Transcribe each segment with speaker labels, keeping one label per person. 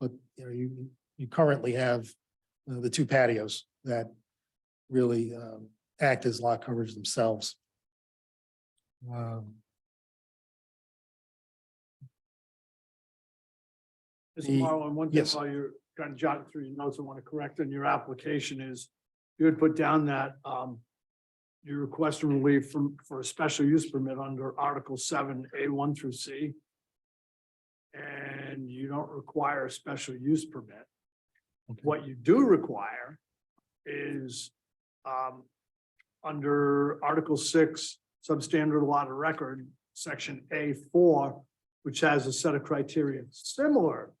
Speaker 1: you know, you, you currently have uh, the two patios that really um, act as lot coverage themselves. Um,
Speaker 2: Mr.
Speaker 1: The-
Speaker 2: Marlon, one thing
Speaker 1: yes.
Speaker 2: while you're kind of jotting through your notes, I want to correct in your application is you had put down that um you request relief from for a special use permit under Article seven, A one through C. And you don't require a special use permit.
Speaker 1: Okay.
Speaker 2: What you do require is um under Article six, substandard lot of record, section A four, which has a set of criteria similar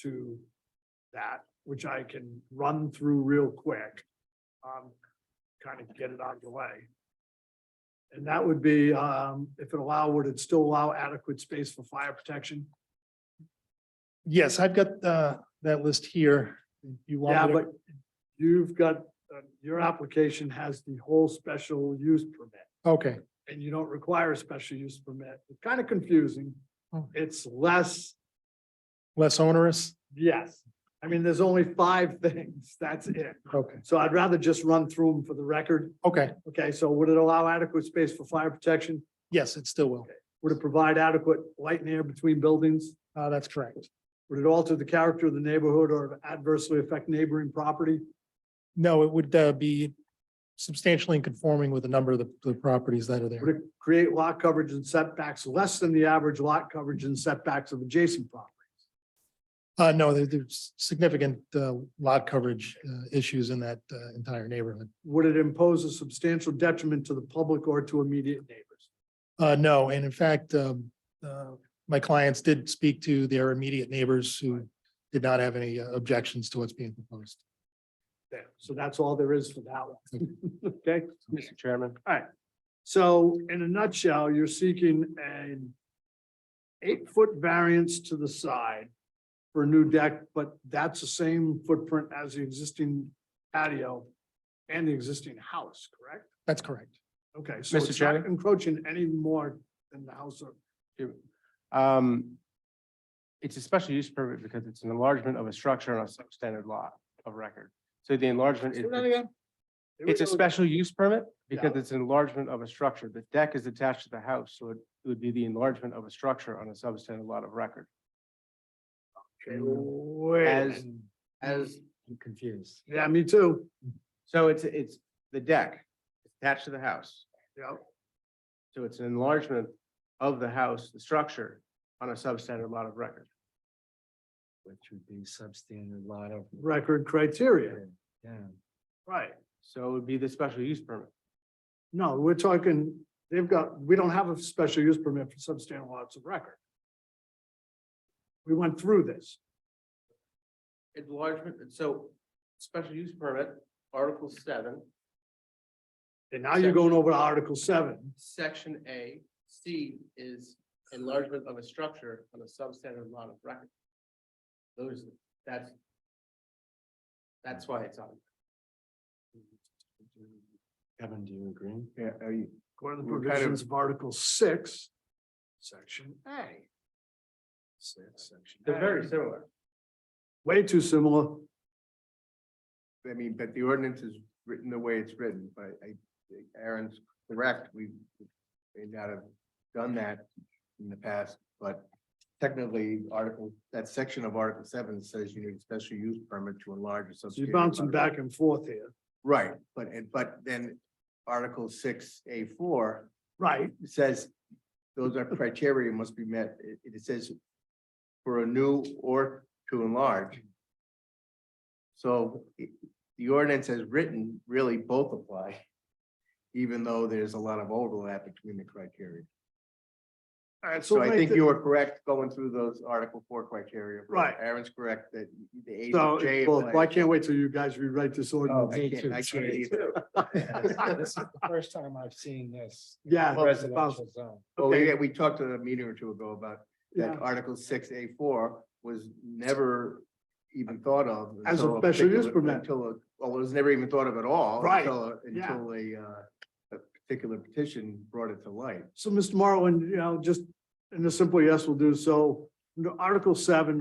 Speaker 2: to that, which I can run through real quick. Um, kind of get it out of the way. And that would be, um, if it allow, would it still allow adequate space for fire protection?
Speaker 1: Yes, I've got uh, that list here. You
Speaker 2: Yeah,
Speaker 1: want, me to-
Speaker 2: but you've got, uh, your application has the whole special use permit.
Speaker 1: okay,
Speaker 2: and you don't require a special use permit. It's kind of confusing.
Speaker 1: Oh.
Speaker 2: It's less,
Speaker 1: less onerous?
Speaker 2: yes. I mean, there's only five things. That's it.
Speaker 1: Okay,
Speaker 2: So I'd rather just run through them for the record.
Speaker 1: okay,
Speaker 2: Okay, so would it allow adequate space for fire protection?
Speaker 1: yes, it still will.
Speaker 2: Would it provide adequate light and air between buildings?
Speaker 1: Uh, That's correct.
Speaker 2: Would it alter the character of the neighborhood or adversely affect neighboring property?
Speaker 1: No, it would uh, be substantially in conforming with a number of the, the properties that are there.
Speaker 2: Would it create lot coverage and setbacks less than the average lot coverage and setbacks of adjacent property?
Speaker 1: Uh, no, there- there's significant, uh, lot coverage, uh, issues in that, uh, entire neighborhood.
Speaker 2: Would it impose a substantial detriment to the public or to immediate neighbors?
Speaker 1: Uh, no, and in fact, um, uh, my clients did speak to their immediate neighbors who did not have any uh, objections to what's being proposed.
Speaker 2: there. So that's all there is for that one. Okay,
Speaker 3: Mr. Chairman.
Speaker 2: so in a nutshell, you're seeking an eight-foot variance to the side for a new deck, but that's the same footprint as the existing patio and the existing house, correct?
Speaker 1: That's correct.
Speaker 2: Okay, so
Speaker 3: Mr.
Speaker 2: it's not
Speaker 3: Chairman?
Speaker 2: encroaching any more than the house or
Speaker 3: Um, it's a special use permit because it's an enlargement of a structure on a substandard lot of record. So the enlargement is,
Speaker 2: Say that again? There we
Speaker 3: it's a
Speaker 2: go.
Speaker 3: special use permit because it's an enlargement of a structure. The deck is attached to the house, so it would be the enlargement of a structure on a substandard lot of record.
Speaker 2: Okay, Wait, a
Speaker 3: As,
Speaker 2: minute.
Speaker 3: as. I'm confused.
Speaker 2: yeah, me too.
Speaker 3: So it's, it's the deck attached to the house.
Speaker 2: Yeah,
Speaker 3: So it's an enlargement of the house, the structure on a substandard lot of record.
Speaker 4: which would be substandard lot of.
Speaker 2: record criteria,
Speaker 4: Yeah,
Speaker 2: right.
Speaker 3: So it would be the special use permit.
Speaker 2: No, we're talking, they've got, we don't have a special use permit for substandard lots of record. We went through this.
Speaker 3: Enlargement, so special use permit, Article seven,
Speaker 2: And now you're going over to Article seven.
Speaker 3: Section A, C is enlargement of a structure on a substandard lot of record. Those, that's. That's why it's on.
Speaker 4: Kevin, do you agree?
Speaker 3: Yeah, are you?
Speaker 2: According to the
Speaker 3: We're kind of-
Speaker 2: provisions of Article six, section A. Six, section
Speaker 3: They're
Speaker 2: A.
Speaker 3: very similar.
Speaker 2: Way too similar.
Speaker 3: I mean, but the ordinance is written the way it's written, but I, Aaron's correct, we may not have done that in the past, but technically, article, that section of Article seven says you need a special use permit to enlarge a
Speaker 2: So
Speaker 3: substandard.
Speaker 2: you're bouncing
Speaker 3: lot of-
Speaker 2: back and forth here.
Speaker 3: Right, but, and, but then Article six, A four
Speaker 2: Right,
Speaker 3: says those are criteria must be met. It, it says for a new or to enlarge. So it- the ordinance as written, really both apply, even though there's a lot of overlap between the criteria.
Speaker 2: all right, so
Speaker 3: So I
Speaker 2: make
Speaker 3: think
Speaker 2: the-
Speaker 3: you were correct going through those Article four criteria.
Speaker 2: Right.
Speaker 3: Aaron's correct that the A
Speaker 2: so,
Speaker 3: to J.
Speaker 2: well, I
Speaker 3: applies.
Speaker 2: can't wait till you guys rewrite this
Speaker 4: Oh,
Speaker 2: ordinance.
Speaker 4: me
Speaker 3: I can't-
Speaker 4: too,
Speaker 3: I can't
Speaker 4: sorry.
Speaker 3: either.
Speaker 4: This is the first time I've seen this. in a
Speaker 2: Yeah.
Speaker 4: Residential zone.
Speaker 3: Well, we,
Speaker 2: Okay.
Speaker 3: Oh, we talked a meeting or two ago about
Speaker 2: Yeah.
Speaker 3: that Article six A four was never even thought of.
Speaker 2: As a
Speaker 3: until
Speaker 2: special use
Speaker 3: particular-
Speaker 2: permit.
Speaker 3: Until, a- well, it was never even thought of at all.
Speaker 2: Right,
Speaker 3: Until, a-
Speaker 2: yeah.
Speaker 3: until a, uh, a particular petition brought it to light.
Speaker 2: So, Mr. Marlin, you know, just in a simple yes will do. So, under Article seven,